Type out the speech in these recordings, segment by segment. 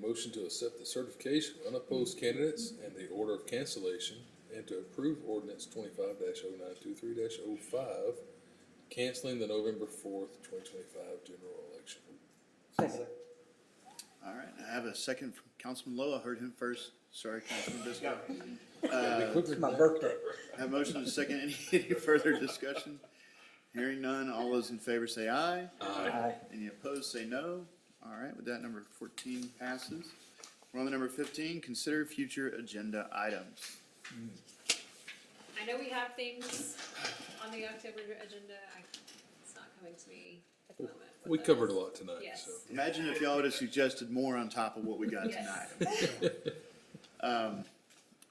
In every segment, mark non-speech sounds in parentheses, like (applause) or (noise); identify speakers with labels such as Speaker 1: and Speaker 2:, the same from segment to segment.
Speaker 1: motion to accept the certification of unopposed candidates and the order of cancellation, and to approve ordinance twenty-five oh 923 5 oh canceling the November fourth, twenty twenty-five general election.
Speaker 2: Second.
Speaker 3: All right, I have a second from Councilman Lowe. I heard him first. Sorry, Councilman Bisco.
Speaker 2: It's my birthday.
Speaker 3: I Have a motion and a second. Any, any further discussion? Hearing none. All those in favor say aye.
Speaker 2: Aye.
Speaker 3: Any opposed, say no. All right, with that, number fourteen passes. We're on to number fifteen, consider future agenda items.
Speaker 4: I know we have things on the October agenda, I, it's not coming to me at the moment. what
Speaker 1: We
Speaker 4: that
Speaker 1: covered
Speaker 4: is.
Speaker 1: a lot tonight,
Speaker 4: Yes.
Speaker 1: so.
Speaker 3: Imagine if y'all would have suggested more on top of what we got tonight. Um,
Speaker 4: Yes.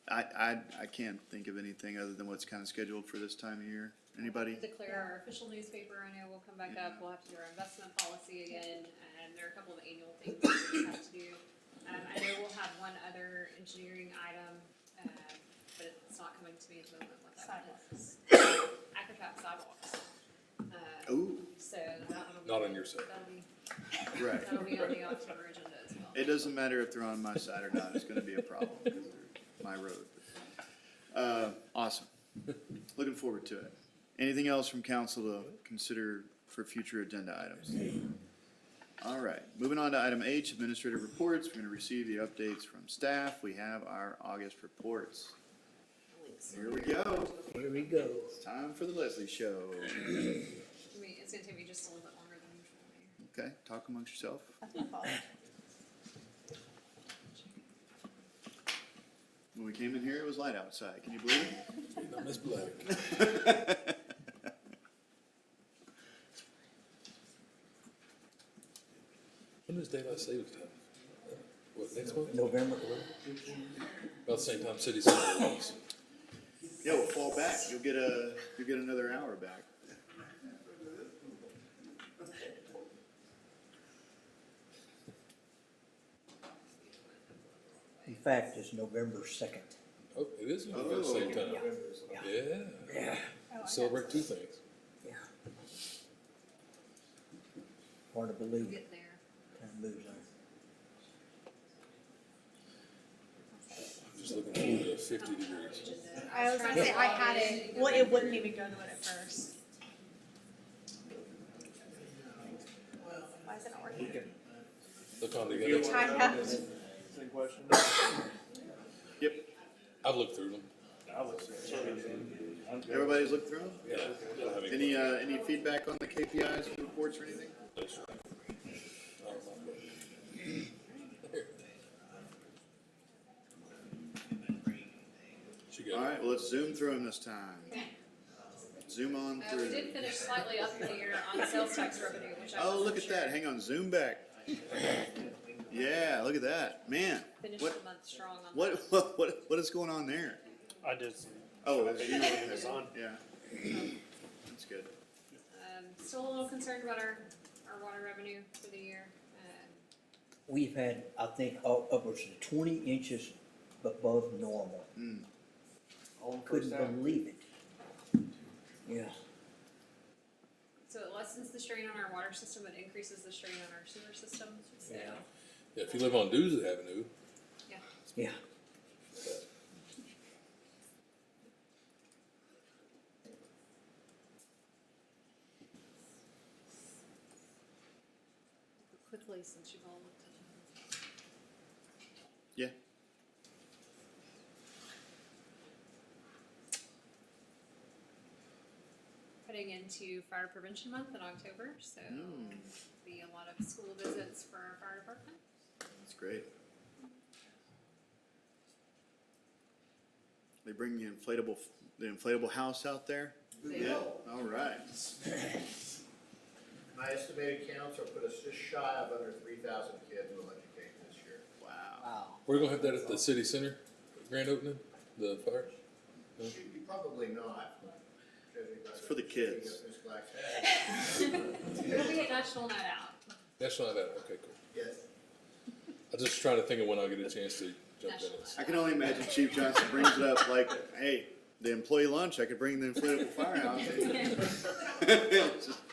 Speaker 3: I, I, I can't think of anything other than what's kind of scheduled for this time of year. Anybody?
Speaker 4: Declare our official newspaper, I know we'll come back up, we'll have to do our investment policy again, and there are a couple of annual things that we have to do. Um, I know we'll have one other engineering item, um, but it's not coming to me at the moment what that one is. Acrocat sidewalks. Uh,
Speaker 3: Ooh,
Speaker 4: So that one will be.
Speaker 1: Not on your side.
Speaker 4: That'll be,
Speaker 3: right.
Speaker 4: that'll be on the October agenda as well.
Speaker 3: It doesn't matter if they're on my side or not, it's gonna be a problem, because they're my road. Uh, awesome. Looking forward to it. Anything else from council to consider for future agenda items? All right, moving on to item H, administrative reports. We're gonna receive the updates from staff. We have our August reports. Here we go.
Speaker 2: Here we go.
Speaker 3: It's time for the Leslie Show.
Speaker 4: I mean, it's gonna take me just a little bit longer than usual. here.
Speaker 3: Okay, talk amongst yourself. When we came in here, it was light outside. Can you believe it?
Speaker 1: Not Ms. Black. (laughs) When is daylight savings time? What, next month?
Speaker 2: November.
Speaker 1: About the same time city center laws.
Speaker 3: Yeah, we'll fall back. You'll get a, you'll get another hour back.
Speaker 2: In fact, it's November second.
Speaker 1: Oh, it is about the same time. Yeah,
Speaker 2: Yeah.
Speaker 1: celebrate two things.
Speaker 2: Yeah. Hard to believe it.
Speaker 4: Get there.
Speaker 2: Time moves on.
Speaker 1: I'm just looking forward to fifty degrees.
Speaker 4: Agenda.
Speaker 5: I was gonna say, I had it, well, it wouldn't even go to it at first. Why is it not working?
Speaker 1: Look on the other.
Speaker 5: I have,
Speaker 6: Any questions?
Speaker 3: Yep.
Speaker 1: I've looked through them.
Speaker 6: I would say.
Speaker 3: Everybody's looked through 'em?
Speaker 1: Yeah. I don't have any
Speaker 3: Any, uh, any feedback on the KPIs, reports or anything?
Speaker 1: questions. I don't know. She got
Speaker 3: All
Speaker 1: it.
Speaker 3: right, well, let's zoom through them this time. Zoom on
Speaker 4: Uh, we did
Speaker 3: through. (laughs)
Speaker 4: finish slightly up in the year on sales tax revenue, which I
Speaker 3: Oh,
Speaker 4: wasn't
Speaker 3: look at
Speaker 4: sure.
Speaker 3: that. Hang on, zoom back. Yeah, look at that. Man,
Speaker 4: Finished
Speaker 3: what,
Speaker 4: the month strong on
Speaker 3: what, what, what is going on there?
Speaker 6: I did some.
Speaker 3: Oh, it's you.
Speaker 6: Amazon.
Speaker 3: Yeah. That's good.
Speaker 4: that. Um, still a little concerned about our, our water revenue for the year. Um,
Speaker 2: We've had, I think, up- upwards of twenty inches above normal. Couldn't believe it. Yeah.
Speaker 4: so it lessens the strain on our water system, it increases the strain on our sewer system, so.
Speaker 2: Yeah.
Speaker 1: Yeah, if you live on Doozy Avenue,
Speaker 2: Yeah.
Speaker 4: Quickly, since you've all looked at
Speaker 3: Yeah.
Speaker 4: it. Heading into fire prevention month in October, so
Speaker 3: Hmm.
Speaker 4: be a lot of school visits for our fire department.
Speaker 3: That's great. They bring the inflatable, the inflatable house out there?
Speaker 4: They
Speaker 3: Yeah,
Speaker 4: will.
Speaker 3: all right.
Speaker 7: My estimated counts will put us just shy of under three thousand kids will educate this year.
Speaker 3: Wow.
Speaker 2: Wow.
Speaker 1: we're gonna have that at the city center, grand opening, the fire.
Speaker 7: Should be Probably not. judging by
Speaker 3: It's for the kids.
Speaker 7: Ms. Black's head.
Speaker 4: It'll be a national night out.
Speaker 1: That's not that, okay, cool.
Speaker 7: Yes.
Speaker 1: I'm just trying to think of when I'll get a chance to jump in
Speaker 4: National
Speaker 1: it.
Speaker 3: I can only imagine Chief Johnson brings it up like, hey, the employee lunch, I could bring the inflatable firehouse. (laughs) It's just-